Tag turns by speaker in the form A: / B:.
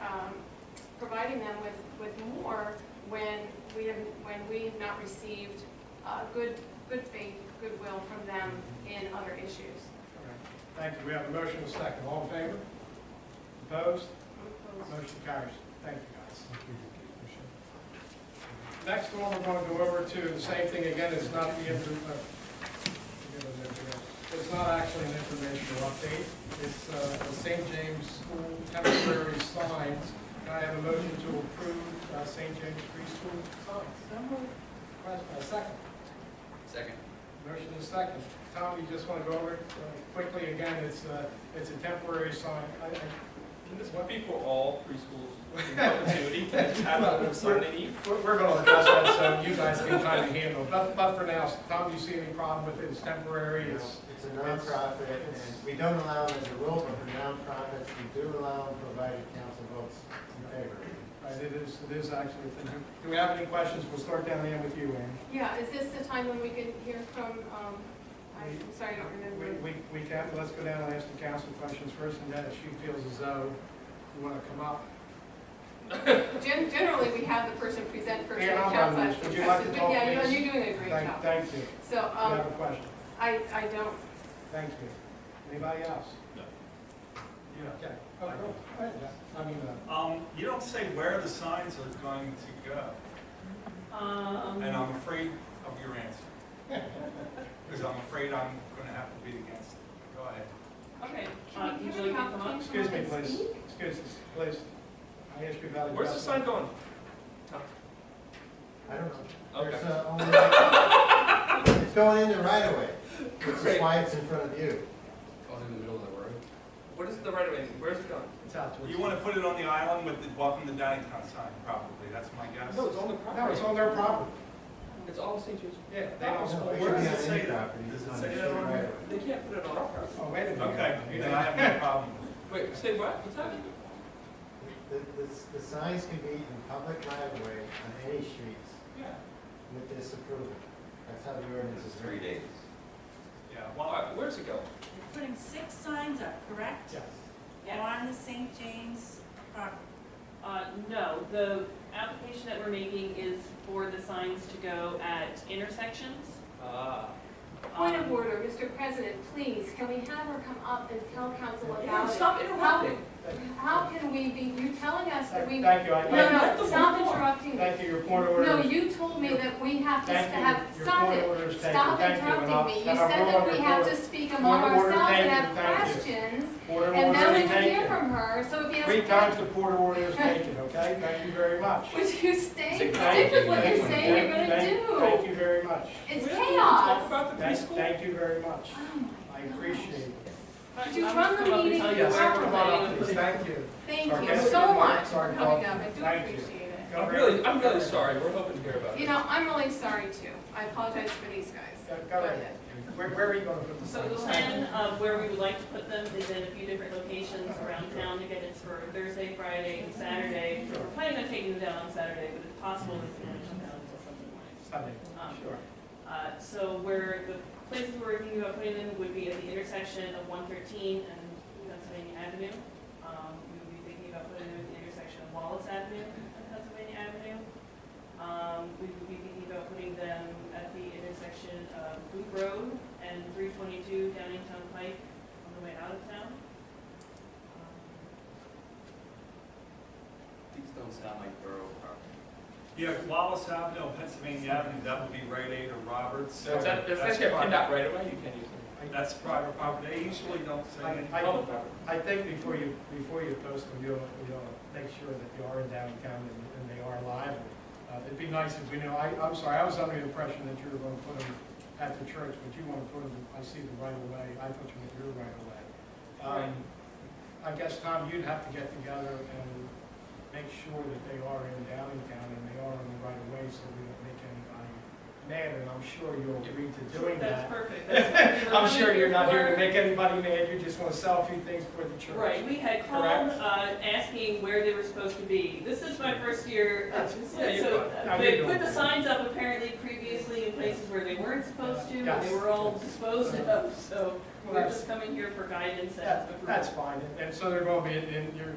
A: um, providing them with, with more when we have, when we have not received uh, good, good faith, goodwill from them in other issues.
B: All right. Thank you. We have a motion and a second. All in favor? Opposed? Motion carries. Thank you, guys. Next one, we're going to go over to the same thing again. It's not the, inter- uh, forget what it is. it's not actually an informational update. It's uh, the St. James School temporary signs. Can I have a motion to approve uh, St. James preschool signs? Question, uh, Second.
C: Second.
B: Motion is second. Tom, you just want to go over it uh, quickly again? It's a, it's a temporary sign. I- I-
D: Can this be for all preschools in perpetuity? Can I just have a little sign they need?
B: We're, we're going to address that so you guys can kind of handle. it. But, but for now, Tom, do you see any problem with it? It's temporary, it's,
E: It's a nonprofit, and we don't allow them as a rule, but for nonprofits, we do allow them provided council votes in favor.
B: right, it is, it is actually. a thing. Do we have any questions? We'll start down the end with you, Ann.
A: Yeah, is this the time when we can hear from, um, I'm sorry, I don't
B: We,
A: remember.
B: we, we can, let's go down and ask the council questions first, and then if she feels as though you want to come up.
A: Gen- Generally, we have the person present first
B: Yeah,
A: and
B: I'll
A: count
B: run
A: last.
B: this. Would you like to
A: But
B: talk,
A: Yeah,
B: please?
A: you're you're doing a great
B: Thank,
A: job.
B: thank you. Do
A: So,
B: you have
A: um,
B: a question?
A: I, I don't,
B: Thank you. Anybody else?
F: No.
B: Yeah. Okay. Oh, cool. Go ahead, Jeff. I mean, uh,
F: Um, you don't say where the signs are going to go,
A: um.
F: and I'm afraid of your answer. Because I'm afraid I'm gonna have to be against it. Go ahead.
G: Okay, uh,
A: Can we-
G: usually
A: can we
G: you
A: have-
G: come
A: can
G: up.
A: we
B: Excuse me,
A: come and
B: please.
A: speak?
B: Excuse us, please. I ask you about it.
D: Where's the sign going?
E: I don't know.
D: Okay.
E: There's, uh, only- It's going in the right of way, which is
D: Great.
E: why it's in front of you.
C: Going Oh, in the middle of the road.
D: What is the right of way? Where's it going?
B: It's out towards.
F: You wanna put it on the island with the welcome to Downingtown sign, probably, that's my guess.
D: No, it's on the
B: No,
D: property.
B: it's on their property. Oh,
D: It's all St. James.
B: Yeah, they don't.
E: No,
B: split.
E: it
F: Where
E: should be
F: does it
E: on
F: say
E: any
F: that?
E: property,
F: Does
E: it's
F: it
E: on
F: say
E: the
F: that
E: state
F: on
E: right
F: there?
E: of way.
D: They can't put it on our property.
B: Oh, wait a minute.
F: Okay, then I have no problem with it.
D: Wait, say what? What's happening?
E: The, the, the signs can be in public right of way on any streets
F: Yeah,
E: with this approval. That's how the ordinance is written.
C: days.
F: yeah,
D: All
F: well,
D: right, where's it going?
G: You're putting six signs up, correct?
B: Yes.
G: On the St. James property? Uh, no, the application that we're making is for the signs to go at intersections.
D: Ah.
A: Point of
G: Um,
A: order, Mr. President, please, can we have her come up and tell council
D: Yeah,
A: about it?
D: Stop interrupting.
A: How can we be, you're telling us that we, no,
B: Thank you. I-
D: Let
A: no,
D: the
A: stop
D: woman talk.
A: interrupting me.
B: Thank you, your point of order.
A: No,
B: is-
A: you told me that we have to
B: Thank you.
A: have,
B: Your
A: stop
B: point
A: it.
B: of order is taken.
A: Stop
B: Thank you, and I'll-
A: interrupting me. You
B: and I'll
A: said
B: rule
A: that
B: on
A: we
B: your
A: have
B: point.
A: to speak among
B: Point of order
A: ourselves and
B: taken.
A: have
B: Thank you.
A: questions,
B: Point of
A: and
B: order
A: then
B: is
A: we can hear
B: taken.
A: from her, so if you
B: Three
A: have
B: times
A: to...
B: the point of order is taken, okay? Thank you very much.
A: Would you stay,
C: Thank
A: stick
B: Thank
A: with
C: you.
A: what you're
C: Thank
A: saying you're gonna
B: Thank- thank- Thank
A: do?
B: you very much.
A: It's
D: We don't need to Talk
A: chaos.
D: about the
B: Thank,
D: preschool.
B: thank you very much.
A: Oh my
B: I
A: gosh.
B: appreciate it.
A: Could you
G: I'm
A: run
G: just
A: the
G: gonna
A: meeting
G: tell you
B: Yes,
A: where
B: come on up, please. Thank you.
A: Thank
B: Okay.
A: you so much for
B: Sorry,
A: coming
B: Paul.
A: up, I do
B: Thank you.
A: appreciate it.
B: Go
D: I'm
B: right-
D: really, I'm really sorry. We're hoping to hear about
A: You
D: it.
A: know, I'm really sorry too. I apologize for these guys.
B: Go go ahead. Where, where are you going to put the
G: So the
B: sign?
G: plan of where we would like to put them is in a few different locations around town to get it for Thursday, Friday, and Saturday. We're planning on taking them down on Saturday, but it's possible that they're gonna come down until something like
B: Sunday, sure.
G: Uh, So where the places we're thinking about putting them would be at the intersection of one thirteen and Pennsylvania Avenue. Um, We would be thinking about putting them at the intersection of Wallace Avenue and Pennsylvania Avenue. Um, We would be thinking about putting them at the intersection of Boot Road and three twenty-two Downingtown Pike on the way out of town. Um,
C: These don't sound like borough property.
F: yeah, Wallace Avenue, Pennsylvania Avenue, that would be Rite Aid or Roberts.
D: If that, if that's your
F: private-
D: PennDOT right away, you can use
F: That's private property, they usually don't say
B: I-
F: anything.
D: it. Public property.
B: I think before you, before you post them, you'll, you'll make sure that they are in downtown and, and they are live. Uh, it'd be nice if we know, I, I'm sorry, I was under the impression that you were going to put them at the church, but you want to put them, I see the right away. I thought you meant your right away. Um, I guess, Tom, you'd have to get together and make sure that they are in downtown and they are in the right away, so we don't make anybody mad, and I'm sure you'll agree to doing that.
G: That's perfect. That's what we were
B: I'm sure you're not here to
G: looking for.
B: make anybody mad, you just want to sell a few things for the church.
G: Right, we had called,
B: Correct.
G: uh, asking where they were supposed to be. This is my first year, uh,
D: yeah, you're
G: so
D: fine.
B: How
G: uh, they
B: you
G: put
B: doing?
G: the signs up apparently previously in places where they weren't supposed to, and
B: Yes.
G: they were all disposed of, so
B: Well,
G: we're
B: that's-
G: just coming here for guidance and
B: That-
G: approval.
B: That's fine, and- and so they're going to be, in- in your